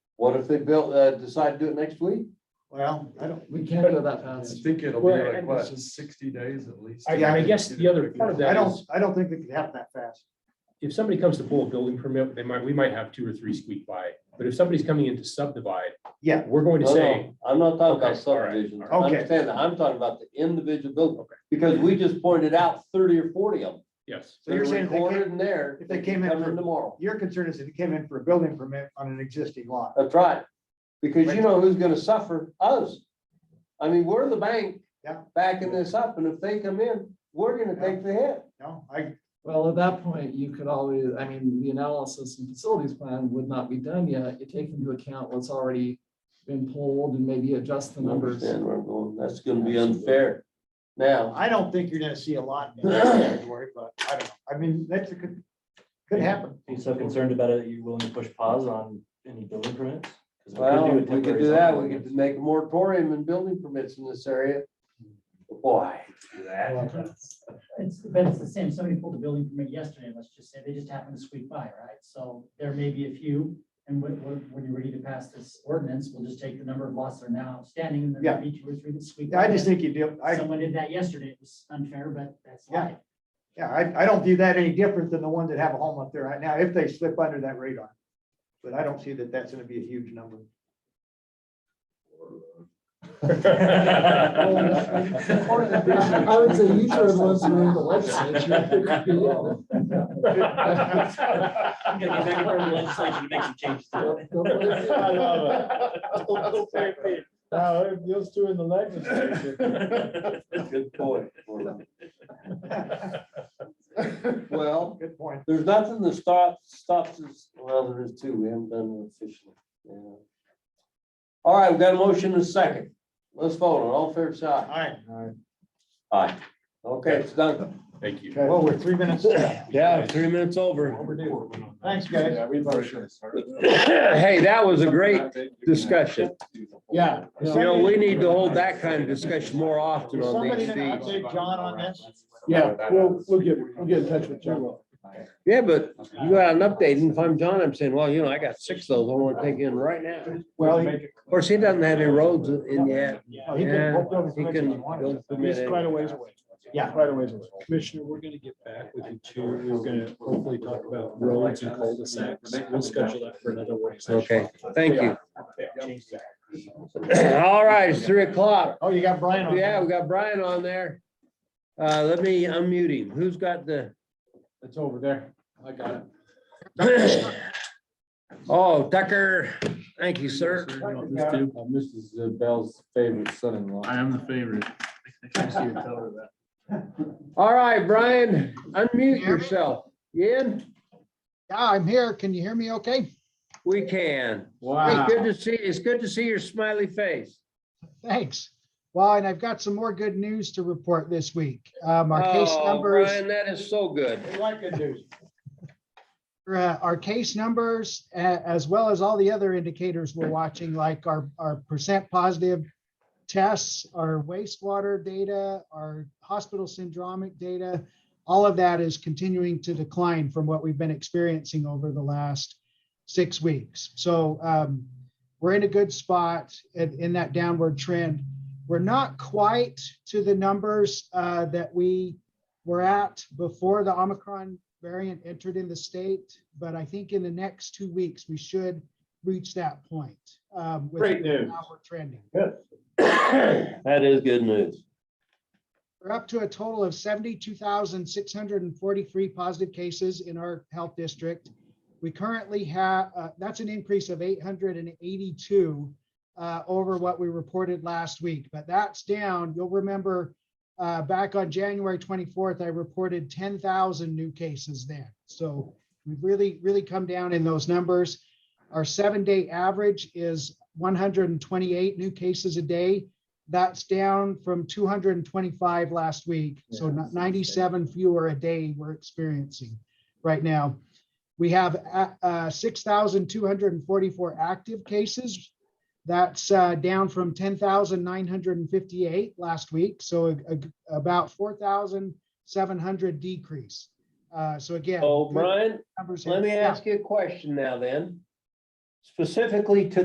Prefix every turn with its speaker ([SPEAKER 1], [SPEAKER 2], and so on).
[SPEAKER 1] What if they built, uh, decide to do it next week?
[SPEAKER 2] Well, I don't,
[SPEAKER 3] We can't go that fast.
[SPEAKER 4] think it'll
[SPEAKER 5] Well, and it's
[SPEAKER 4] sixty days at least.
[SPEAKER 5] I, I guess the other part of
[SPEAKER 2] I
[SPEAKER 5] that
[SPEAKER 2] don't,
[SPEAKER 5] is,
[SPEAKER 2] I don't think it could happen that fast.
[SPEAKER 5] if somebody comes to pull a building permit, they might, we might have two or three squeak by, but if somebody's coming in to subdivide.
[SPEAKER 2] Yeah.
[SPEAKER 5] We're going to
[SPEAKER 1] No, no,
[SPEAKER 5] say,
[SPEAKER 1] I'm not talking about
[SPEAKER 5] Okay, all right,
[SPEAKER 1] subdivisions.
[SPEAKER 2] all right. Okay.
[SPEAKER 1] Understand that. I'm talking about the individual building,
[SPEAKER 5] Okay.
[SPEAKER 1] because we just pointed out thirty or forty of them.
[SPEAKER 5] yes,
[SPEAKER 2] So you're
[SPEAKER 1] They're
[SPEAKER 2] saying if they came-
[SPEAKER 1] recorded in there.
[SPEAKER 2] if they
[SPEAKER 1] can
[SPEAKER 2] came in
[SPEAKER 1] Come
[SPEAKER 2] for-
[SPEAKER 1] in tomorrow.
[SPEAKER 2] Your concern is if you came in for a building permit on an existing lot.
[SPEAKER 1] That's right. Because you
[SPEAKER 2] Right.
[SPEAKER 1] know who's gonna suffer? Us. I mean, we're the bank.
[SPEAKER 2] Yeah.
[SPEAKER 1] Backing this up, and if they come in, we're gonna
[SPEAKER 2] Yeah.
[SPEAKER 1] take the hit.
[SPEAKER 2] No, I,
[SPEAKER 3] Well, at that point, you could always, I mean, the analysis and facilities plan would not be done yet. You take into account what's already been pulled and maybe adjust the numbers.
[SPEAKER 1] Understand where I'm going. That's gonna be unfair. Now,
[SPEAKER 2] I don't think you're gonna see a lot in that category, but I don't, know. I mean, that's a could, could happen.
[SPEAKER 6] Are you so concerned about it, are you willing to push pause on any building permits? 'Cause we could
[SPEAKER 1] well,
[SPEAKER 6] do a
[SPEAKER 1] we could
[SPEAKER 6] temporary
[SPEAKER 1] do that. We
[SPEAKER 6] something.
[SPEAKER 1] could make a moratorium and building permits in this area. Boy.
[SPEAKER 7] It's, but it's the same, somebody pulled a building permit yesterday, let's just say, they just happened to squeak by, right? So there may be a few, and when, when, when you're ready to pass this ordinance, we'll just take the number of lots that are now standing, and then there'll be two or three that squeak.
[SPEAKER 2] Yeah, I
[SPEAKER 7] by.
[SPEAKER 2] just think you do, I,
[SPEAKER 7] Someone did that yesterday, it was unfair, but that's
[SPEAKER 2] Yeah.
[SPEAKER 7] life.
[SPEAKER 2] yeah, I, I don't view that any different than the ones that have a home up there right now, if they slip under that radar. But I don't see that that's gonna be a huge number.
[SPEAKER 3] I I would say you should have listened to the legislature.
[SPEAKER 6] I'm gonna get back in front of the legislature to make some changes. to it.
[SPEAKER 4] Those two in the legislature.
[SPEAKER 1] Good point. Well,
[SPEAKER 2] Good point.
[SPEAKER 1] there's nothing that stops, stops us, well, there is two, we haven't done it officially. yeah. All right, we've got a motion and a second. Let's vote on all fair side.
[SPEAKER 2] All
[SPEAKER 1] Aye. Okay, it's done.
[SPEAKER 5] thank you.
[SPEAKER 2] right, well, we're three minutes.
[SPEAKER 1] Yeah, three minutes over.
[SPEAKER 2] Thanks, guys.
[SPEAKER 1] Hey, that was a great discussion.
[SPEAKER 2] Yeah.
[SPEAKER 1] You know, we need to hold that kind of discussion more often on
[SPEAKER 2] Somebody
[SPEAKER 1] these
[SPEAKER 2] didn't
[SPEAKER 1] things.
[SPEAKER 2] update John on this?
[SPEAKER 4] Yeah, we'll, we'll get, we'll get in
[SPEAKER 6] touch with
[SPEAKER 4] you.
[SPEAKER 1] Yeah, but you got an update, and if I'm John, I'm saying, well, you know, I got six of those I want to take in right now. Of
[SPEAKER 2] Well,
[SPEAKER 1] course, he doesn't have any roads in yet.
[SPEAKER 2] Yeah, he can-
[SPEAKER 1] Yeah,
[SPEAKER 2] we'll build as
[SPEAKER 1] he
[SPEAKER 2] much as
[SPEAKER 1] can
[SPEAKER 2] he wants.
[SPEAKER 1] build them in any-
[SPEAKER 4] away.
[SPEAKER 2] Yeah.
[SPEAKER 4] Quite a ways away.
[SPEAKER 5] Commissioner, we're gonna get back with you too. We're gonna hopefully talk about roads and cul-de-sacs. We'll schedule that for another work session.
[SPEAKER 1] Okay, thank you.
[SPEAKER 6] Change that.
[SPEAKER 1] All right, it's three o'clock.
[SPEAKER 2] Oh, you got Brian on.
[SPEAKER 1] Yeah, we got Brian on there. Uh, let me unmute him. Who's got the?
[SPEAKER 4] It's over there. I got it.
[SPEAKER 1] Oh, Tucker, thank you, sir.
[SPEAKER 4] uh, Mrs. Bell's favorite son-in-law.
[SPEAKER 8] I am the favorite.
[SPEAKER 1] All right, Brian, unmute yourself. Ian,
[SPEAKER 9] Yeah, I'm here. Can you hear me okay?
[SPEAKER 1] we can. Hey,
[SPEAKER 4] Wow.
[SPEAKER 1] good to see, it's good to see your smiley face.
[SPEAKER 9] Thanks. Well, and I've got some more good news to report this week. Um, our case
[SPEAKER 1] Oh,
[SPEAKER 9] numbers,
[SPEAKER 1] Brian, that is so good.
[SPEAKER 2] Like a dude.
[SPEAKER 9] uh, our case numbers, a- as well as all the other indicators we're watching, like our, our percent positive tests, our wastewater data, our hospital syndromic data, all of that is continuing to decline from what we've been experiencing over the last six weeks. So um, we're in a good spot in, in that downward trend. We're not quite to the numbers uh, that we were at before the Omicron variant entered in the state, but I think in the next two weeks, we should reach that point. um, with
[SPEAKER 4] Great news.
[SPEAKER 9] how we're trending.
[SPEAKER 1] That is good news.
[SPEAKER 9] We're up to a total of seventy-two thousand, six hundred and forty-three positive cases in our health district. We currently have, uh, that's an increase of eight hundred and eighty-two uh, over what we reported last week, but that's down. You'll remember uh, back on January twenty-fourth, I reported ten thousand new cases then. So we've really, really come down in those numbers. Our seven-day average is one hundred and twenty-eight new cases a day. That's down from two hundred and twenty-five last week, so
[SPEAKER 4] Yeah.
[SPEAKER 9] not- ninety-seven fewer a day we're experiencing right now. We have a- uh, six thousand two hundred and forty-four active cases. That's uh, down from ten thousand nine hundred and fifty-eight last week, so a- a- about four thousand seven hundred decrease. Uh, So again.
[SPEAKER 1] Oh,
[SPEAKER 9] good
[SPEAKER 1] Brian,
[SPEAKER 9] numbers here.
[SPEAKER 1] let me
[SPEAKER 9] Yeah.
[SPEAKER 1] ask you a question now then. Specifically to